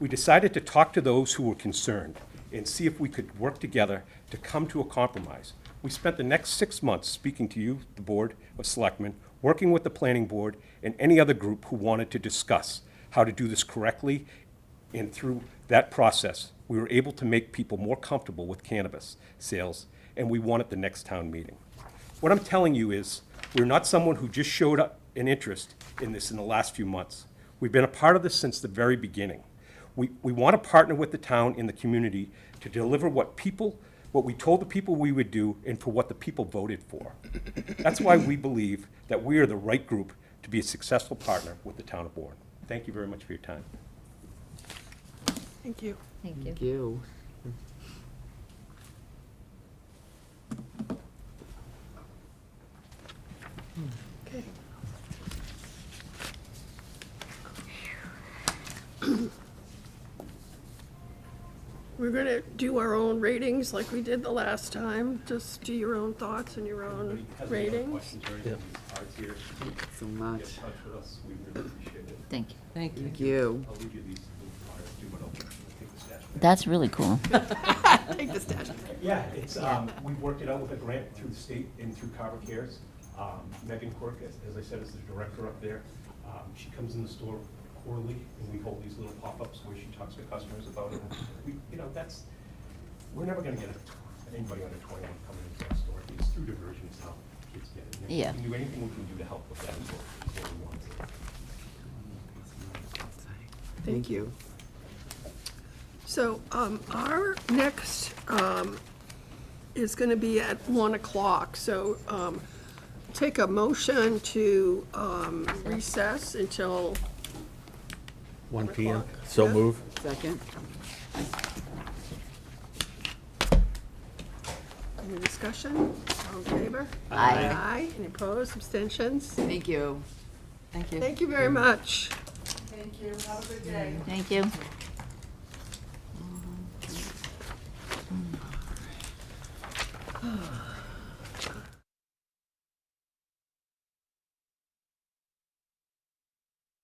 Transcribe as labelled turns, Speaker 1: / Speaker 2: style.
Speaker 1: We decided to talk to those who were concerned and see if we could work together to come to a compromise. We spent the next six months speaking to you, the Board of Selectmen, working with the Planning Board and any other group who wanted to discuss how to do this correctly. And through that process, we were able to make people more comfortable with cannabis sales, and we won at the next town meeting. What I'm telling you is, we're not someone who just showed up an interest in this in the last few months. We've been a part of this since the very beginning. We, we want to partner with the town and the community to deliver what people, what we told the people we would do and for what the people voted for. That's why we believe that we are the right group to be a successful partner with the town of Bourne. Thank you very much for your time.
Speaker 2: Thank you.
Speaker 3: Thank you.
Speaker 4: Thank you.
Speaker 2: Okay. We're gonna do our own ratings like we did the last time, just do your own thoughts and your own ratings.
Speaker 4: So much.
Speaker 3: Thank you.
Speaker 5: Thank you.
Speaker 4: Thank you.
Speaker 3: That's really cool.
Speaker 2: Take the stash.
Speaker 1: Yeah, it's, um, we worked it out with a grant through the state and through Carver Cares. Um, Megan Quirk, as as I said, is the director up there. Um, she comes in the store quarterly, and we hold these little pop-ups where she talks to customers about it. We, you know, that's, we're never gonna get a- anybody under twenty-one coming into our store. It's through diversion is how kids get it. And
Speaker 3: Yeah.
Speaker 1: We can do anything we can do to help with that, is what, is what we want.
Speaker 4: Thank you.
Speaker 2: So, um, our next, um, is gonna be at one o'clock, so, um, take a motion to, um, recess until
Speaker 6: 1
Speaker 2: PM.
Speaker 6: PM. So
Speaker 2: Yeah.
Speaker 6: move.
Speaker 4: Second?
Speaker 2: Any discussion? All in favor?
Speaker 3: Aye.
Speaker 2: Aye. Any opposed, abstentions?
Speaker 4: Thank you.
Speaker 5: Thank you.
Speaker 2: Thank you very much.
Speaker 3: Thank you.